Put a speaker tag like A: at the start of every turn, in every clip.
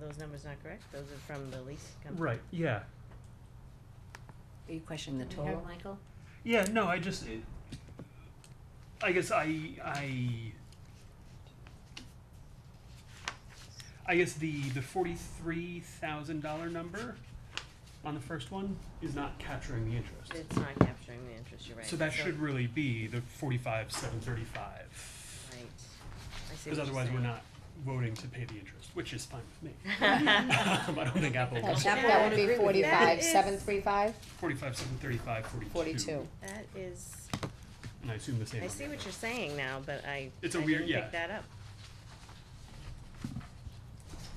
A: those numbers not correct? Those are from the lease company?
B: Right, yeah.
C: Are you questioning the
A: You heard
C: total?
A: Michael?
B: Yeah, no, I just it, I guess I I I guess the the forty-three thousand dollar number on the first one is not capturing the interest.
A: It's not capturing the interest, you're right.
B: So that should really be the forty-five seven thirty-five.
A: Right. I see
B: Because
A: what you're
B: otherwise we're
A: saying.
B: not voting to pay the interest, which is fine with me. Um, I don't think Apple
D: That
B: was
A: Apple
D: that would
A: agree
D: be
A: with that.
D: forty-five,
A: That is-
D: seven, three, five,
B: forty-five seven thirty-five forty-two.
D: forty-two.
A: That is,
B: And I assume the same.
A: I
B: on
A: see
B: the
A: what
B: other.
A: you're saying now, but I, I
B: It's a weird-
A: didn't
B: yeah.
A: pick that up.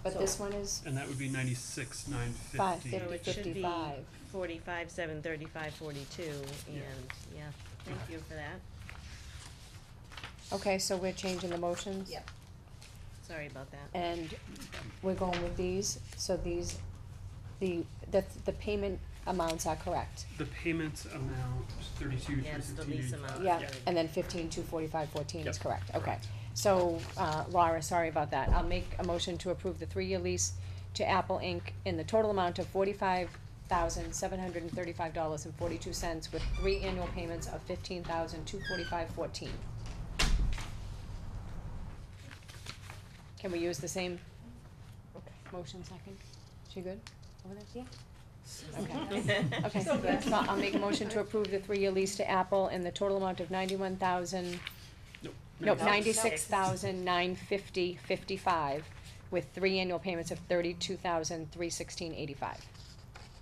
D: But
C: So-
D: this one is
B: And that would be ninety-six nine fifty.
D: five,
A: So
D: fifty,
A: it should be
D: fifty-five.
A: forty-five, seven, thirty-five, forty-two, and,
B: Yeah.
A: yeah, thank
B: Okay.
A: you for that.
D: Okay, so we're changing the motions?
C: Yep.
A: Sorry about that.
C: Eh.
D: And we're going with these, so these, the, the, the payment amounts are correct.
B: The payment amount, thirty-two, three
A: Yes, the
B: sixteen
A: lease
B: eighty-five.
A: amount.
D: Yeah,
A: Yeah.
D: and then fifteen, two forty-five, fourteen is
B: Yep,
D: correct, okay.
B: correct.
D: So, uh, Laura, sorry about that, I'll make a motion to approve the three-year lease to Apple Inc. in the total amount of forty-five thousand, seven hundred and thirty-five dollars and forty-two cents with three annual payments of fifteen thousand, two forty-five, fourteen. Can we use the same motion second? She good over there? Yeah. Okay. Okay, so I'll make a motion to approve the three-year lease to Apple in the total amount of ninety-one thousand,
B: Nope.
D: nope, ninety-six
A: Ninety-six.
D: thousand nine fifty fifty-five, with three annual payments of thirty-two thousand three sixteen eighty-five.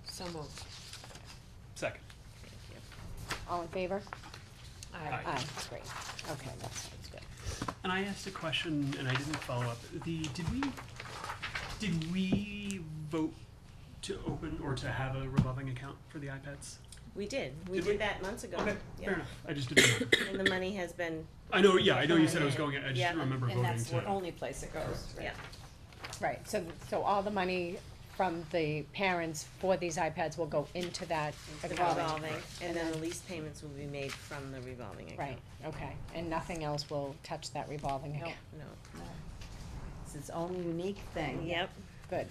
C: So moved.
B: Second.
D: All in favor?
B: Aye.
D: Aye, great, okay, that sounds good.
B: And I asked a question and I didn't follow up. The, did we, did we vote to open or to have a revolving account for the iPads?
A: We did, we
B: Did we?
A: did that months ago.
B: Okay,
A: Yeah.
B: fair enough. I just didn't, know.
A: And the money has been,
B: I know, yeah, I know you said it was
A: Yeah.
B: going, in. I just
A: Yeah.
B: didn't remember
C: And
B: voting
C: that's the
B: to.
C: only place it goes,
A: yeah,
C: right?
D: Right, so, so all the money from the parents for these iPads will go into that
A: it's the
D: revolving.
A: revolving, and then the lease payments will be made from the revolving account.
D: Right, okay, and nothing else will touch that revolving
C: Nope.
D: account,
A: No,
C: It's its own unique thing.
A: yep,
D: good,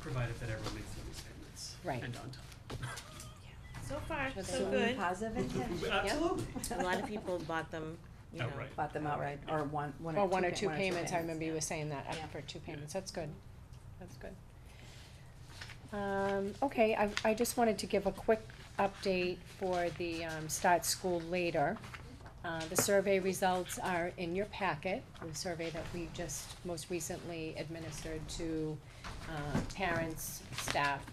B: Provided that everyone makes their lease payments.
D: Right.
B: And on time.
A: so far,
D: Sure
A: so
D: they
C: So
D: will.
A: good.
C: Positive intention.
B: Absolutely.
A: A lot of people bought them, you know.
B: Outright.
C: Bought them outright, or one, one or two.
D: well, one or
C: pa-
D: two payments, I remember you
C: yeah.
D: were saying that, up
C: Yeah.
D: for two payments, that's good, that's good. Um, okay, I, I just wanted to give a quick update for the, um, start school later. Uh, the survey results are in your packet, the survey that we just most recently administered to, uh, parents, staff,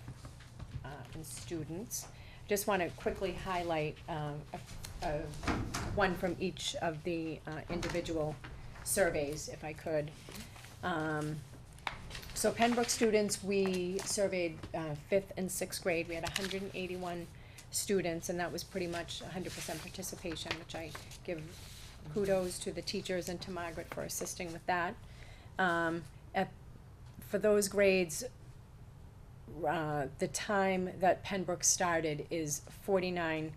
D: uh, and students. Just wanna quickly highlight, um, a, a, one from each of the, uh, individual surveys, if I could. Um, so Pembroke students, we surveyed uh, fifth and sixth grade, we had hundred and eighty-one students, and that was pretty much hundred percent participation, which I give kudos to the teachers and to Margaret for assisting with that. Um, at, for those grades, uh, the time that Pembroke started is forty-nine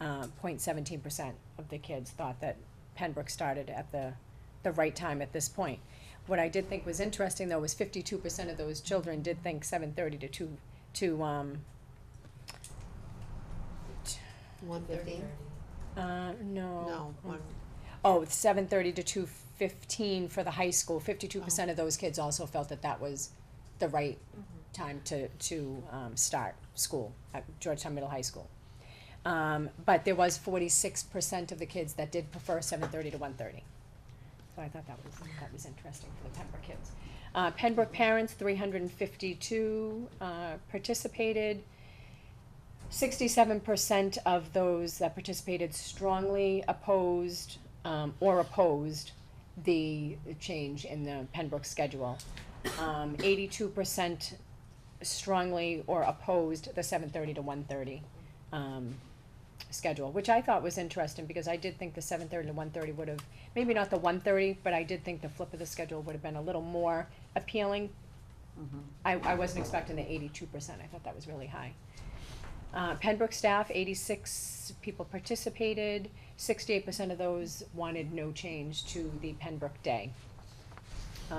D: uh, point seventeen percent of the kids thought that Pembroke started at the, the right time at this point. What I did think was interesting though was fifty-two percent of those children did think seven thirty to two, to, um,
E: One fifteen?
D: uh,
E: No, one,
D: Oh, seven thirty to two fifteen for the high school, fifty-two percent of those kids also felt that that was the right time to, to, um, start school at Georgetown Middle High School. Um, but there was forty-six percent of the kids that did prefer seven thirty to one thirty. So I thought that was, that was interesting for the Pembroke kids. Uh, Pembroke parents, three hundred and fifty-two, uh, participated. Sixty-seven percent of those that participated strongly opposed, um, or opposed the change in the Pembroke schedule. Um, eighty-two percent strongly or opposed the seven thirty to one thirty, um, schedule, which I thought was interesting, because I did think the seven thirty to one thirty would have, maybe not the one thirty, but I did think the flip of the schedule would have been a little more appealing.
C: Mm-hmm.
D: I, I wasn't expecting the eighty-two percent, I thought that was really high. Uh, Pembroke staff, eighty-six people participated, sixty-eight percent of those wanted no change to the Pembroke day.